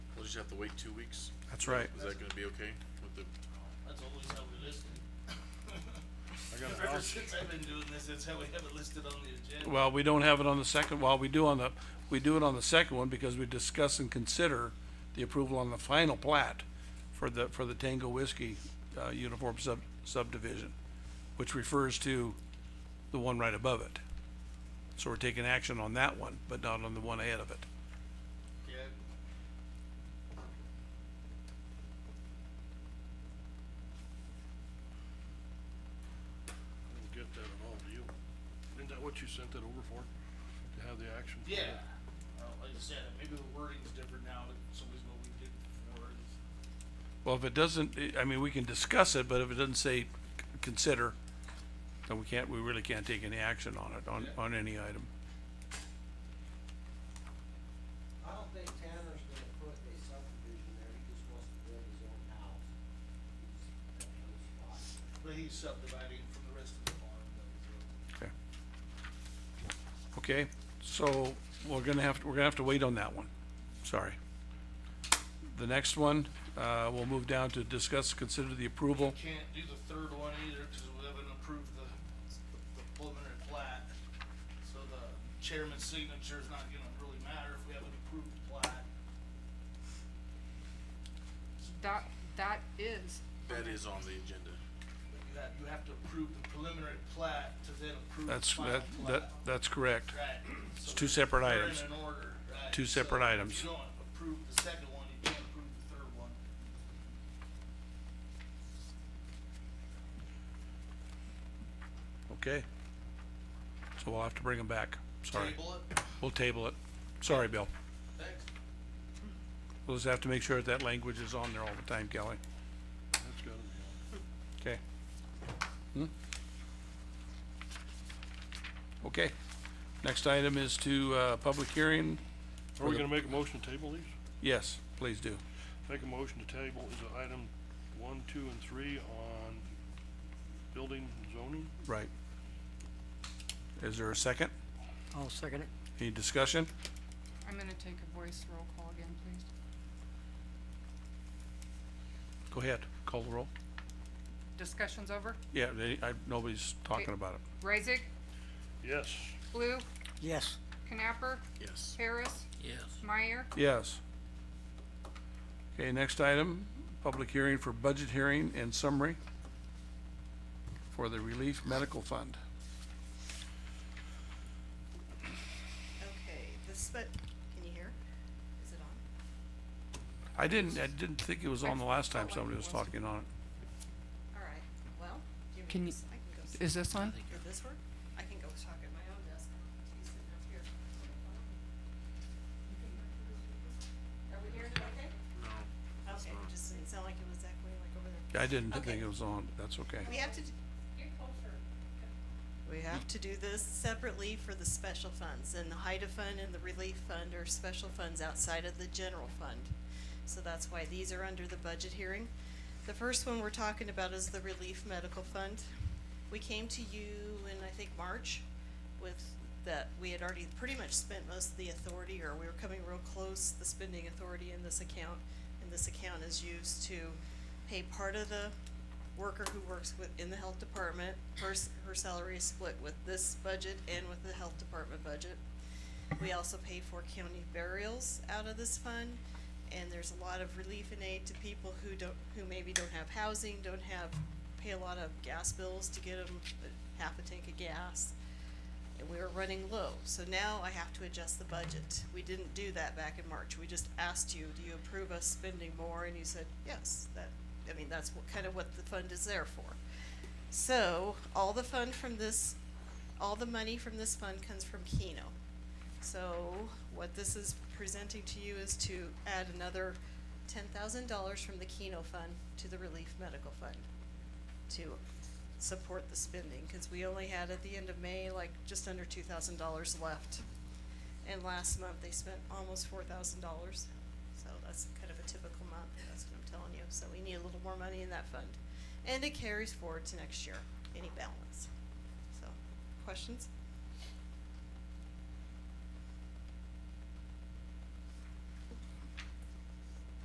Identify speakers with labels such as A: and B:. A: just have to wait two weeks?
B: That's right.
A: Is that gonna be okay with the,
C: That's always how we list it.
D: I got a
C: Ever
D: house,
C: since I've been doing this, that's how we have it listed on the agenda.
B: Well, we don't have it on the second, well, we do on the, we do it on the second one because we discuss and consider the approval on the final plat for the, for the Tango Whiskey, uh, uniform sub, subdivision, which refers to the one right above it. So we're taking action on that one, but not on the one ahead of it.
C: Yeah.
D: I don't get that at all, do you? Isn't that what you sent that over for? To have the action? for
C: Yeah,
D: that?
C: well, like I said, maybe the wording's different now, but it's always what we did before. It's-
B: Well, if it doesn't, I- I mean, we can discuss it, but if it doesn't say c- consider, then we can't, we really can't take any action on it, on, on any item.
E: I don't think Tanner's gonna put a subdivision there, he just wants to build his own house. He's got no spot.
C: But he's subdividing from the rest of the farm, though,
B: Okay. Okay, so we're gonna have, to- we're gonna have to wait on that one, sorry. The next one, uh, we'll move down to discuss, consider the approval.
C: so. Can't do the third one either, cause we haven't approved the, the preliminary plat. So the chairman's signature's not gonna really matter if we haven't approved the plat.
F: That, that is.
A: that is on the agenda?
C: You have, you have to approve the preliminary plat to then approve the
B: That's,
C: final
B: that,
C: plat.
B: that, that's correct.
C: Right. It's
B: two separate items.
C: They're in an order, right.
B: Two separate
C: So
B: items.
C: If you don't approve the second one, you can't approve the third one.
B: Okay. So we'll have to bring them back, sorry.
C: Table it,
B: We'll table it. Sorry, Bill.
C: thanks.
B: We'll just have to make sure that that language is on there all the time, Kelly.
D: That's gotta be on.
B: Okay. Hmm? Okay, next item is to, uh, public hearing.
D: Are we
B: the-
D: gonna make a motion to table these?
B: Yes, please do.
D: Make a motion to table is it item one, two, and three on building zoning?
B: Right. Is there a second?
G: I'll second it.
B: Any discussion?
F: I'm gonna take a voice roll call again, please.
B: Go ahead, call the roll.
F: Discussion's over.
B: Yeah, they, I, nobody's talking about it.
F: Raisig,
D: Yes.
F: Blue,
G: Yes,
F: Knapper,
A: Yes.
F: Harris,
C: Yes.
F: Meyer,
B: Yes. Okay, next item, public hearing for budget hearing and summary for the relief medical fund.
H: Okay, this, but, can you hear? Is it on?
B: I didn't, I didn't think it was on the last time somebody was talking on it.
H: All right, well, give
F: Can you-
H: me this, I can go. s-
F: is this on?
H: Or this one? I can go talk at my own desk. She's sitting up here. Are we hearing it okay? No. Okay, it just didn't sound like it was echoing like over there.
B: I didn't
H: Okay.
B: think it was on, that's okay.
H: We have to. d- We have to do this separately for the special funds, and the HIDA fund and the relief fund are special funds outside of the general fund. So that's why these are under the budget hearing. The first one we're talking about is the relief medical fund. We came to you in, I think, March with that, we had already pretty much spent most of the authority, or we were coming real close, the spending authority in this account. And this account is used to pay part of the worker who works with, in the health department, her, s- her salary is split with this budget and with the health department budget. We also pay for county burials out of this fund, and there's a lot of relief and aid to people who don't, who maybe don't have housing, don't have, pay a lot of gas bills to get them half a tank of gas. And we were running low, so now I have to adjust the budget. We didn't do that back in March, we just asked you, do you approve us spending more, and you said, yes, that, I mean, that's what, kind of what the fund is there for. So, all the fund from this, all the money from this fund comes from Keno. So, what this is presenting to you is to add another ten thousand dollars from the Keno fund to the relief medical fund to support the spending, cause we only had at the end of May, like, just under two thousand dollars left. And last month, they spent almost four thousand dollars, so that's kind of a typical month, that's what I'm telling you, so we need a little more money in that fund. And it carries forward to next year, any balance, so, questions?